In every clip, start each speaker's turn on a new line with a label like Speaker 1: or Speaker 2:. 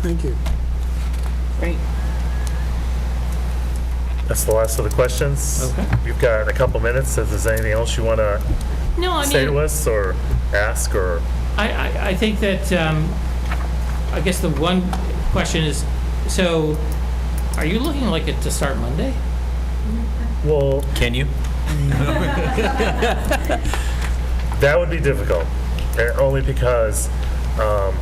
Speaker 1: Thank you.
Speaker 2: Great.
Speaker 3: That's the last of the questions.
Speaker 4: Okay.
Speaker 3: You've got a couple minutes, if there's anything else you want to
Speaker 4: No, I
Speaker 3: say
Speaker 4: mean,
Speaker 3: to us or ask or,
Speaker 4: I, I, I think that, um, I guess the one question is, so are you looking like it to start Monday?
Speaker 3: well,
Speaker 5: Can you?
Speaker 3: that would be difficult, eh, only because um,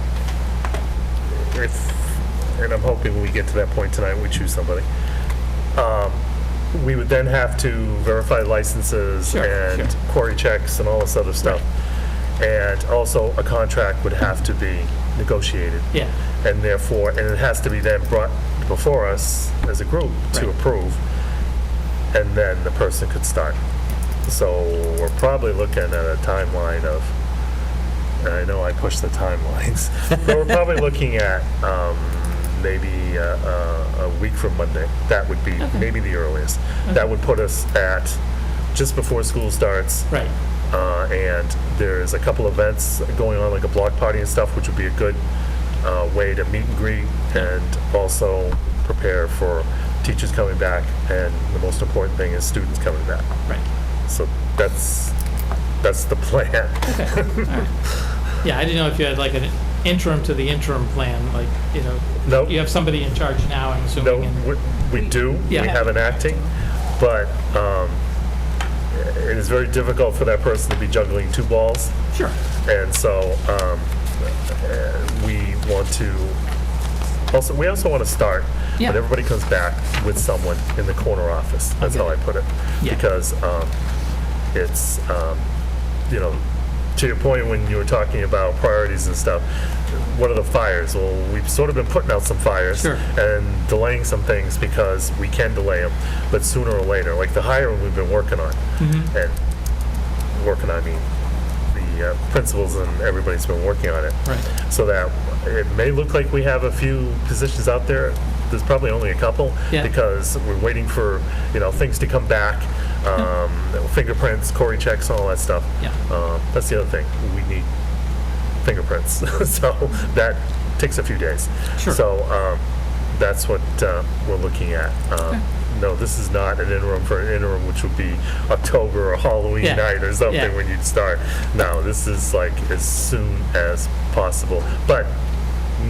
Speaker 3: if, and I'm hoping when we get to that point tonight, we choose somebody. Um, We would then have to verify licenses
Speaker 4: Sure,
Speaker 3: and
Speaker 4: sure.
Speaker 3: quarry checks and all this other stuff. And also, a contract would have to be negotiated.
Speaker 4: Yeah,
Speaker 3: and therefore, and it has to be then brought before us as a group to
Speaker 4: Right.
Speaker 3: approve, and then the person could start. So we're probably looking at a timeline of, and I know I push the timelines, but we're probably looking at um, maybe uh, uh, a week from Monday. That would be maybe the earliest. That would put us at just before school starts.
Speaker 4: right,
Speaker 3: Uh, and there's a couple events going on, like a block party and stuff, which would be a good uh, way to meet and greet and also prepare for teachers coming back. And the most important thing is students coming back.
Speaker 4: right.
Speaker 3: So that's that's the plan.
Speaker 4: Yeah, I didn't know if you had like an interim to the interim plan, like, you know,
Speaker 3: No,
Speaker 4: you have somebody in charge now, I'm
Speaker 3: no,
Speaker 4: assuming. and-
Speaker 3: we, we do.
Speaker 4: Yeah.
Speaker 3: We have an acting, but um, it is very difficult for that person to be juggling two balls.
Speaker 4: Sure,
Speaker 3: And so um, uh, we want to, also, we also want to start,
Speaker 4: Yeah.
Speaker 3: when everybody comes back with someone in the corner office. That's how I put it.
Speaker 4: Yeah.
Speaker 3: Because um, it's, um, you know, to your point when you were talking about priorities and stuff, what are the fires? Well, we've sort of been putting out some fires
Speaker 4: Sure.
Speaker 3: and delaying some things because we can delay them, but sooner or later, like the hiring we've been working on.
Speaker 4: Mm-hmm.
Speaker 3: And working on, I mean, the uh, principals and everybody's been working on it.
Speaker 4: right,
Speaker 3: So that it may look like we have a few positions out there. There's probably only a couple
Speaker 4: Yeah.
Speaker 3: because we're waiting for, you know, things to come back. Um, fingerprints, Cory checks, all that stuff.
Speaker 4: Yeah.
Speaker 3: Um, that's the other thing. We need fingerprints. so that takes a few days.
Speaker 4: Sure.
Speaker 3: So um, that's what uh, we're looking at. Um, No, this is not an interim for an interim, which would be October or Halloween
Speaker 4: Yeah.
Speaker 3: night or something
Speaker 4: Yeah.
Speaker 3: when you'd start. No, this is like as soon as possible, but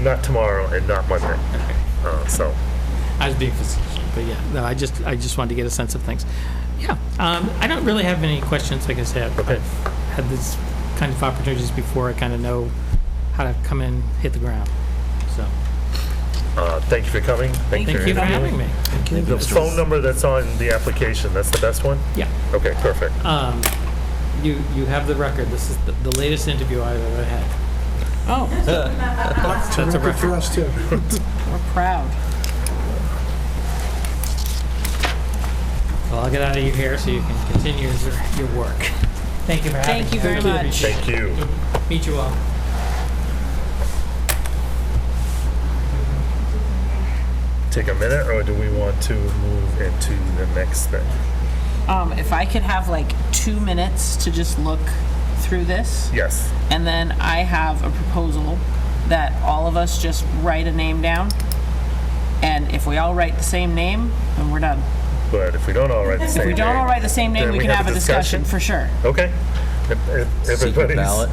Speaker 3: not tomorrow and not Monday.
Speaker 4: okay.
Speaker 3: Uh, so,
Speaker 4: I was being facetious, but yeah, no, I just, I just wanted to get a sense of things. Yeah, um, I don't really have any questions, like I said. I've-
Speaker 3: Okay.
Speaker 4: I've Had these kind of opportunities before, I kind of know how to come in, hit the ground, so.
Speaker 3: uh, thank you for coming.
Speaker 4: Thank you for
Speaker 3: interviewing.
Speaker 4: having me.
Speaker 3: The phone number that's on the application, that's the best one?
Speaker 4: Yeah,
Speaker 3: Okay, perfect.
Speaker 4: um, you, you have the record, this is the, the latest interview I've ever had.
Speaker 2: Oh,
Speaker 4: That's a
Speaker 1: Good for
Speaker 4: record.
Speaker 1: us, too.
Speaker 2: we're proud.
Speaker 4: Well, I'll get out of your hair so you can continue your, your work. Thank you for having me.
Speaker 2: Thank you very
Speaker 4: Really
Speaker 2: much.
Speaker 4: appreciate
Speaker 3: Thank you.
Speaker 4: it. Meet you all.
Speaker 3: Take a minute, or do we want to move into the next thing?
Speaker 2: Um, if I could have like two minutes to just look through this,
Speaker 3: Yes.
Speaker 2: and then I have a proposal that all of us just write a name down, and if we all write the same name, then we're done.
Speaker 3: But if we don't all write the same
Speaker 2: If
Speaker 3: name.
Speaker 2: we don't all write the same name,
Speaker 3: Then
Speaker 2: we can have a discussion for sure.
Speaker 3: Okay. If- if
Speaker 5: Secret
Speaker 3: everybody's-
Speaker 5: ballot.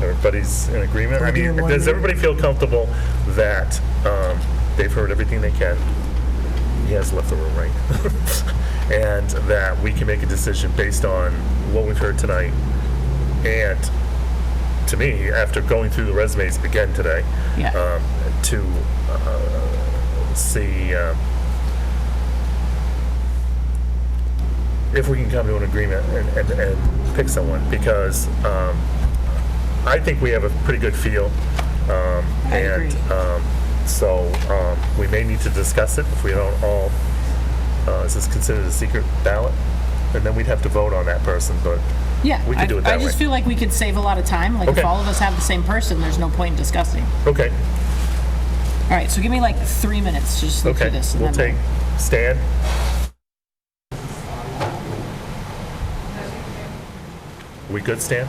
Speaker 3: Everybody's in agreement? I
Speaker 1: We're
Speaker 3: mean,
Speaker 1: doing one
Speaker 3: does
Speaker 1: minute.
Speaker 3: everybody feel comfortable that um, they've heard everything they can? He has left the room, right? And that we can make a decision based on what we've heard tonight. And to me, after going through the resumes again today,
Speaker 2: Yeah.
Speaker 3: um, to uh, see um, if we can come to an agreement and, and, and pick someone, because um, I think we have a pretty good feel. Um,
Speaker 2: I
Speaker 3: and
Speaker 2: agree.
Speaker 3: Um, so um, we may need to discuss it if we don't all. Uh, is this considered a secret ballot? And then we'd have to vote on that person, but
Speaker 2: Yeah,
Speaker 3: We could
Speaker 2: I,
Speaker 3: do it
Speaker 2: I
Speaker 3: that
Speaker 2: just
Speaker 3: way.
Speaker 2: feel like we could save a lot of time. Like
Speaker 3: Okay.
Speaker 2: if all of us have the same person, there's no point in discussing.
Speaker 3: okay,
Speaker 2: All right, so give me like three minutes to just look
Speaker 3: okay.
Speaker 2: through this. and
Speaker 3: We'll
Speaker 2: then
Speaker 3: take Stan. We good, Stan?